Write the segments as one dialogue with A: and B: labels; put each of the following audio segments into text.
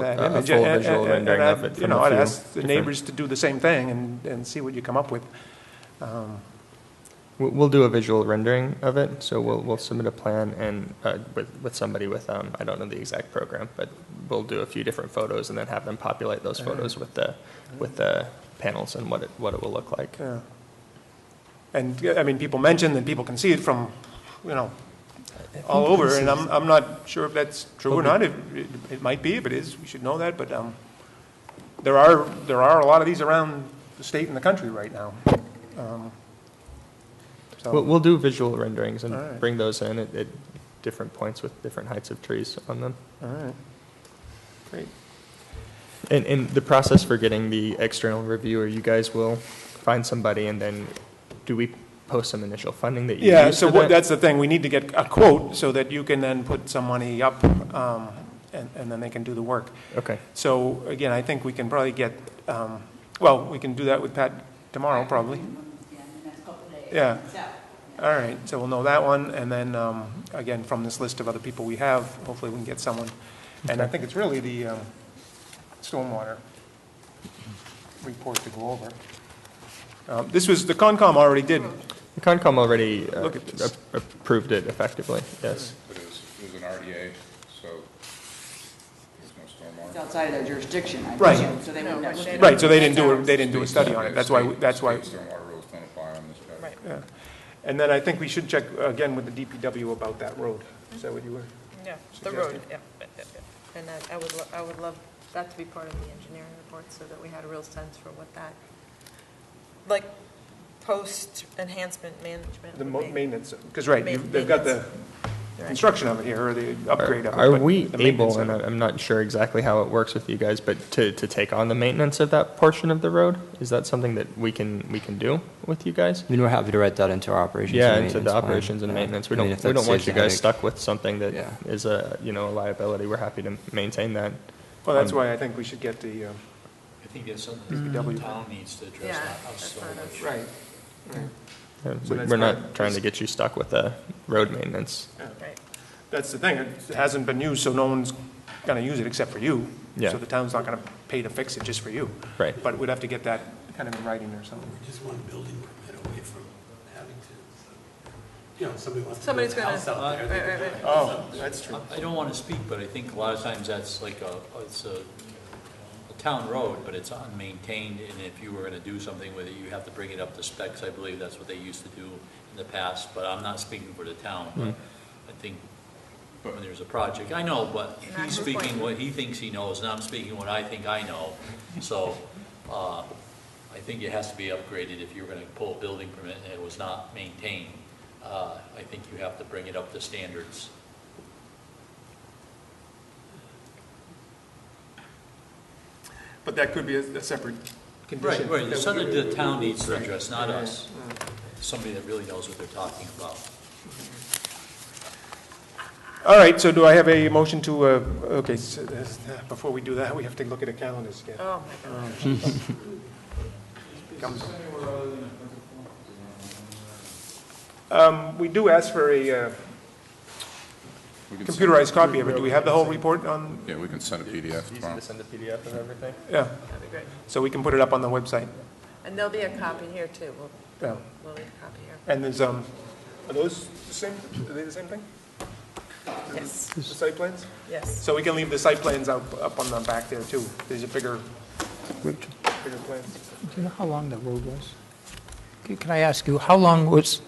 A: that
B: Uh, a- a
A: image.
B: full
A: and-
B: visual
A: and- and
B: rendering
A: I'd,
B: of it
A: You
B: from
A: know,
B: a
A: I'd
B: few
A: ask the
B: different-
A: neighbors to do the same thing and, and see what you come up with. Um,
B: We'll, we'll do a visual rendering of it, so we'll, we'll submit a plan and, uh, with, with somebody with, um, I don't know the exact program, but we'll do a few different photos and then have them populate those
A: Uh-huh.
B: photos with the, with the panels and what it, what it will look like.
A: yeah. And, yeah, I mean, people mentioned and people can see it from, you know, all over, and I'm, I'm not sure if that's true or not. It, it- it might be, if it is, we should know that, but, um, there are, there are a lot of these around the state and the country right now. Um, so-
B: We'll, we'll do visual renderings
A: All
B: and
A: right.
B: bring those in at, at different points with different heights of trees on them.
A: All right. Great.
B: And, and the process for getting the external reviewer, you guys will find somebody and then do we post some initial funding that you
A: Yeah,
B: use
A: so
B: for
A: what,
B: that?
A: that's the thing, we need to get a quote so that you can then put some money up, um, and, and then they can do the work.
B: Okay,
A: So again, I think we can probably get, um, well, we can do that with Pat tomorrow, probably.
C: Yeah, in the next couple of days.
A: Yeah.
C: So,
A: All right, so we'll know that one, and then, um, again, from this list of other people we have, hopefully we can get someone. And I think it's really the, um, stormwater report to go over. Um, this was, the Concom already did,
B: The Concom already uh,
A: Look at this.
B: ap- approved it effectively, yes.
D: It is, it was an RDA, so there's no stormwater.
C: It's outside of their jurisdiction, I
A: Right.
C: presume, so they would never.
A: right, so they didn't do, a- they didn't do a study on it, that's why, we-
D: State-
A: that's why.
D: State stormwater rules don't apply on this project.
A: Yeah, and then I think we should check again with the DPW about that road. Is that what you were?
E: Yeah, the road, yeah, yeah, yeah, yeah. And that, I would, lo- I would love that to be part of the engineering report, so that we had a real sense for what that, like, post-enhancement management
A: The
E: would
A: mo-
E: be.
A: maintenance, because, right, you've- they've got the construction of it here, or the upgrade of it.
B: Are
A: but
B: we
A: the
B: able,
A: maintenance of
B: and uh,
A: it-
B: I- I'm not sure exactly how it works with you guys, but to, to take on the maintenance of that portion of the road? Is that something that we can, we can do with you guys?
F: I mean, we're happy to write that into our operations.
B: Yeah,
F: and
B: into the
F: maintenance plan.
B: operations and
F: Yeah.
B: maintenance. We
F: I mean,
B: don't,
F: if
B: we
F: that
B: don't want
F: saves
B: you
F: the
B: guys
F: headache.
B: stuck with something that
F: Yeah.
B: is a, you know, a liability. We're happy to maintain that. Uh,
A: Well, that's
B: um,
A: why I think we should get the, uh,
G: I think that's something that
A: DPW.
G: the town needs to address,
E: Yeah,
G: not
E: that's
G: us so
E: not us.
G: much.
A: Right.
B: Uh,
A: So
B: we-
A: that's
B: We're
A: fine.
B: not trying to get you stuck with the road maintenance.
E: Right.
A: That's the thing, it hasn't been used, so no one's going to use it except for you.
B: Yeah.
A: So the town's not going to pay to fix it just for you.
B: Right.
A: But we'd have to get that kind of in writing or something.
H: just one building permit away from having to, you know, somebody wants to build
E: Somebody's
H: a
E: gonna-
H: house out there. they-
E: right, right, right.
A: Oh, that's true.
G: I- I don't want to speak, but I think a lot of times that's like a, it's a, a town road, but it's unmaintained, and if you were going to do something with it, you have to bring it up to specs. I believe that's what they used to do in the past, but I'm not speaking for the town. but
A: Mm.
G: I think when there's a project, I know, but
E: Not
G: he's
E: his
G: speaking
E: point.
G: what he thinks he knows, and I'm speaking what I think I know. So, uh, I think it has to be upgraded if you're going to pull a building permit and it was not maintained. Uh, I think you have to bring it up to standards.
A: But that could be a a separate
G: Right,
A: condition.
G: right, it's
A: that we-
G: something the town needs to address, not us. Somebody that really knows what they're talking about.
A: All right, so do I have a motion to, uh, okay, s- s- before we do that, we have to look at the calendars again. Um,
E: Oh, my God.
A: Comes- Um, We do ask for a uh,
D: We can send-
A: computerized copy of it. Do we have the whole report on,
D: Yeah, we can send a PDF
B: Easy
D: tomorrow.
B: to send a PDF of everything.
A: yeah,
E: That'd be great.
A: so we can put it up on the website.
E: And there'll be a copy here, too. We'll,
A: Yeah.
E: we'll leave a copy here.
A: And there's, um, are those the same, are they the same thing?
E: Yes,
A: The site plans?
E: yes.
A: So we can leave the site plans up, up on the back there too. These are bigger, bigger plans.
I: Do you know how long that road was? C- Can I ask you, how long was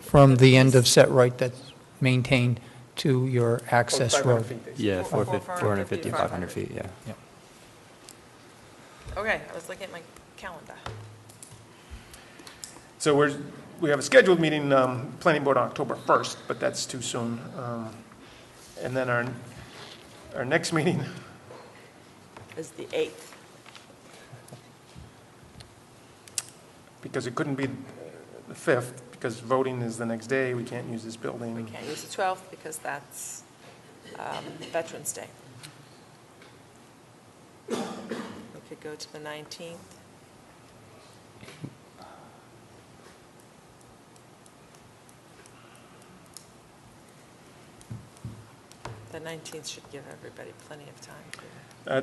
I: from the end of set right that's maintained to your
A: Oh,
I: access
A: 500
I: road?
A: feet, they say.
F: Yeah,
E: Four-
F: four
E: four-
F: fif- 450, 500 feet, yeah.
E: Okay, I was looking at my calendar.
A: So we're, we have a scheduled meeting, um, planning board on October 1st, but that's too soon. Um, And then our, our next meeting,
E: It's the 8th.
A: because it couldn't be the 5th, because voting is the next day, we can't use this building.
E: We can't use the 12th because that's um, Veterans Day. We could go to the 19th.
A: Uh,
E: The 19th should give everybody plenty of time to.